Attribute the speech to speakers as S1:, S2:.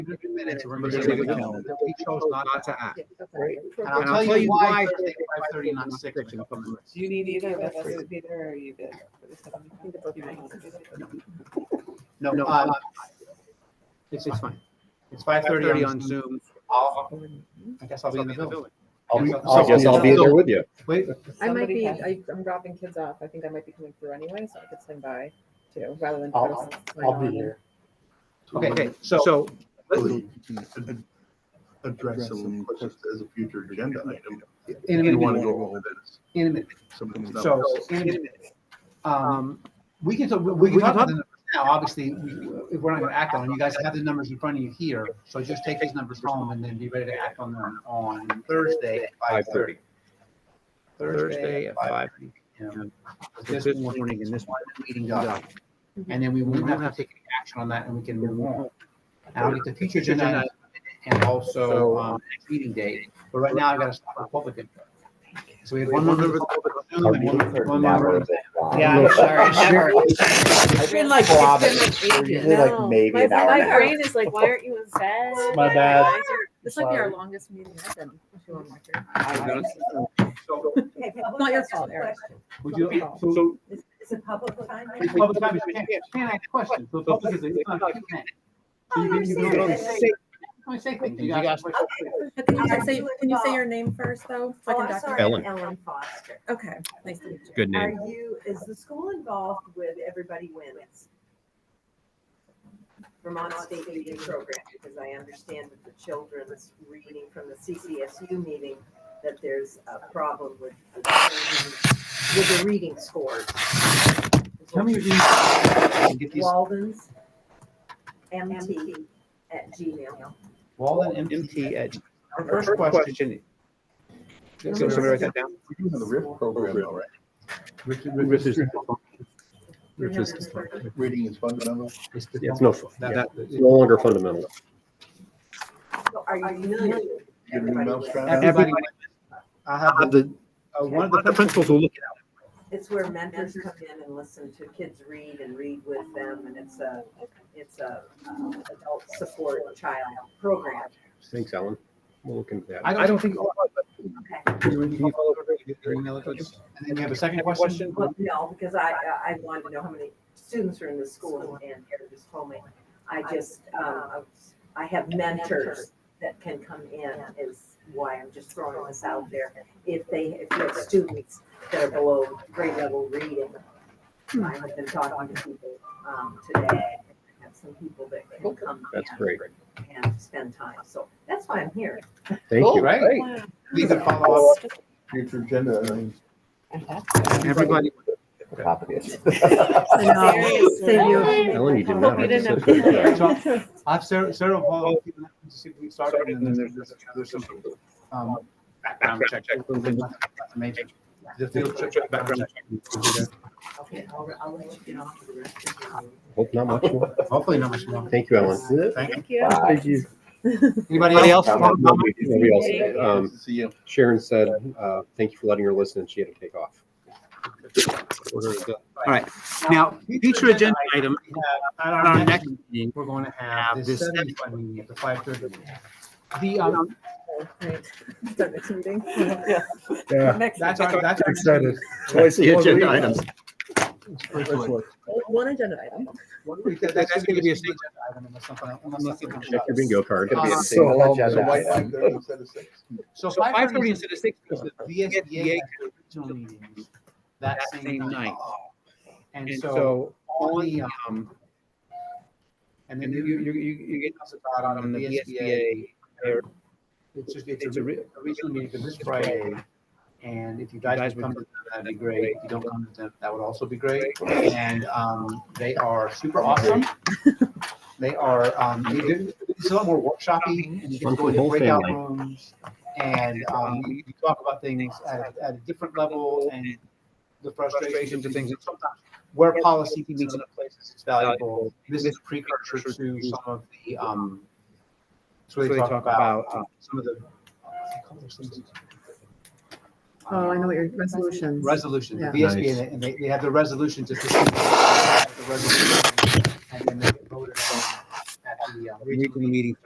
S1: 100 minutes
S2: We're
S1: from
S2: gonna
S1: the
S2: take a
S1: original
S2: calendar.
S1: that we chose not to act.
S3: Right.
S1: And I'll tell you why Thursday, 5:30, not 6. when it comes to this.
S4: You need either of us to be there or you did.
S1: No, uh, it's, it's fine. It's 5:30 on Zoom. I'll, I guess I'll be in the building.
S5: I guess I'll be there with you.
S1: Wait,
S3: I might
S4: Somebody
S3: be,
S4: has-
S3: I, I'm dropping kids off. I think I might be coming through anyway, so I could swing by too, rather than.
S5: I'll-
S3: post my
S5: I'll be
S3: own.
S5: here.
S1: okay, okay, so,
S6: Totally. Ad- Address some questions as a future agenda item.
S1: in a
S6: You want to
S1: minute,
S6: go over this.
S1: in a minute.
S6: some of the stuff.
S1: So, in a minute. Um, we can, talk- we we can talk about the numbers now, obviously, we- if we're not gonna act on, it, you guys have the numbers in front of you here, so just take these numbers home and then be ready to act on them on Thursday at five thirty.
S2: Thursday at five.
S1: This morning Mm-hmm. and this one meeting done. And then we won't have to take any action on that and we can move on. And I'll get the future agenda item and also, um, next meeting date, but right now I've gotta stop the public. input. So we had one member. of the public on Zoom and one- one member of the-
S4: Yeah, I'm sorry. Never.
S5: It's been like Usually
S3: No.
S5: like maybe
S3: My-
S5: an hour and a
S3: My
S5: half.
S3: brain is like, why aren't you in bed?
S5: My
S3: Why
S5: bad.
S3: aren't you-" This might be our
S5: Sorry.
S3: longest meeting I've been. to on record.
S1: So,
S3: Not your fault, Eric.
S1: would you, so
S7: Is is it public time?
S1: It's public time, you can't, you can't ask questions, so the public is, it's not, you can't.
S7: Oh,
S1: So you can- you can only say- only say things, you gotta ask questions.
S3: But Can you just say, can you say your name first, though? so I
S7: Oh,
S3: can
S7: I'm
S3: document-
S7: sorry,
S8: Ellen.
S7: Ellen Foster.
S3: Okay, nice to meet you.
S8: Good
S7: Are
S8: name.
S7: you, is the school involved with Everybody Wins? Vermont State Reading Program, because I understand with the children's reading from the CCSU meeting that there's a problem with, with the reading scores.
S1: Tell me your email, and get these
S7: Walden's MT at Gmail.
S1: Walden and
S2: MT at,
S1: Our first question,
S2: Can somebody write that down?
S6: We do have the RIF program already.
S5: Riff is-
S6: Reading is fundamental.
S1: is the-
S5: Yeah, it's no,
S1: that-
S5: yeah,
S1: that-
S5: it's no longer fundamental.
S7: So Are you familiar with
S6: Get an
S7: Everybody
S6: email
S7: Wins?
S6: strap.
S1: Everybody, I have, the-
S5: The
S1: uh, one of
S8: But The
S1: the,
S8: principals will look
S7: It's where mentors come in and listen to kids read and read with them, and it's a, it's a uh, adult support child program.
S5: Thanks, Alan. We'll look into that.
S1: I don't, I don't think.
S7: Okay.
S1: Can you follow up with your email address? And then we have a second question?
S7: Well, no, because I, I- I wanted to know how many students are in the school, and Eric just told me. I just, um, I have mentors that can come in is why I'm just throwing this out there. If they, if you have students that are below grade level reading, I have been talking to people, um, today. I Have some people that can come
S5: That's
S7: in.
S5: great.
S7: and spend time. So that's why I'm here.
S5: Thank you.
S1: Right,
S3: Wow.
S1: Oh, we can follow up,
S6: Future agenda items.
S1: everybody.
S3: I know. Save you.
S5: Ellen, you did not.
S3: Hope you didn't have-
S1: So, I have Sarah, Sarah will follow up, to see if we started, and then there's, there's- there's some, um, background check. Major. The field trip.
S8: at background.
S7: Okay, I'll, I'll let you get on to the rest of
S5: Hope not much more.
S1: Hopefully not much more.
S5: Thank you, Alan.
S3: Thank you.
S5: Thank you.
S1: Anybody else?
S5: Nobody else. Um,
S6: See you.
S5: Sharon said, uh, thank you for letting her listen and she had to take off. Order is done.
S8: Now, future agenda item,
S1: We have At
S8: at
S1: our next, meeting, we're going to have
S8: have
S1: this
S8: this
S1: seven meeting at the five thirty. The, um,
S3: Right. Start next meeting.
S5: Yeah.
S3: Next.
S1: that's our, that's. our-
S5: Excited.
S6: Twice
S8: the agenda items.
S3: One agenda item.
S1: That- That's just gonna be a single item unless something, unless something.
S5: Check your bingo card.
S1: Uh,
S6: So
S5: So
S6: why
S5: why-
S6: five thirty instead of six?
S1: So
S8: so
S1: five thirty
S8: 5:30 instead of 6,
S1: because the VSBA had their original meetings that
S8: That
S1: same
S8: same
S1: night.
S8: night.
S1: And
S8: and
S1: so
S8: so
S1: on the, um, and then you, you, you, you get us about on
S8: on
S1: the
S8: the
S1: VSBA.
S8: VSBA,
S1: It's just, it's
S8: It's
S1: a
S8: a
S1: re- a regional meeting for this Friday. And if you guys
S8: guys
S1: would come
S8: would
S1: to them, that'd be great. If you don't come to them, that would also be great. And um, they are super awesome. They are, um, they do- it's a lot more workshopping and you can
S5: Fun
S1: go
S5: for the
S1: into
S5: whole
S1: breakout
S5: family.
S1: rooms. And um, you you talk about things at, a- at a different level and the frustrations and
S8: frustrations and
S1: things. And sometimes where policy can meet in other places, it's valuable. This is a precursor to some of the, um, it's where they talk about uh, some of the
S3: Oh, I know what your resolutions.
S1: um, resolution, the
S3: Yeah.
S1: VSB, and they- and they, they have the resolutions at the. the resolution, And then they get voted on at the uh,
S8: regional meeting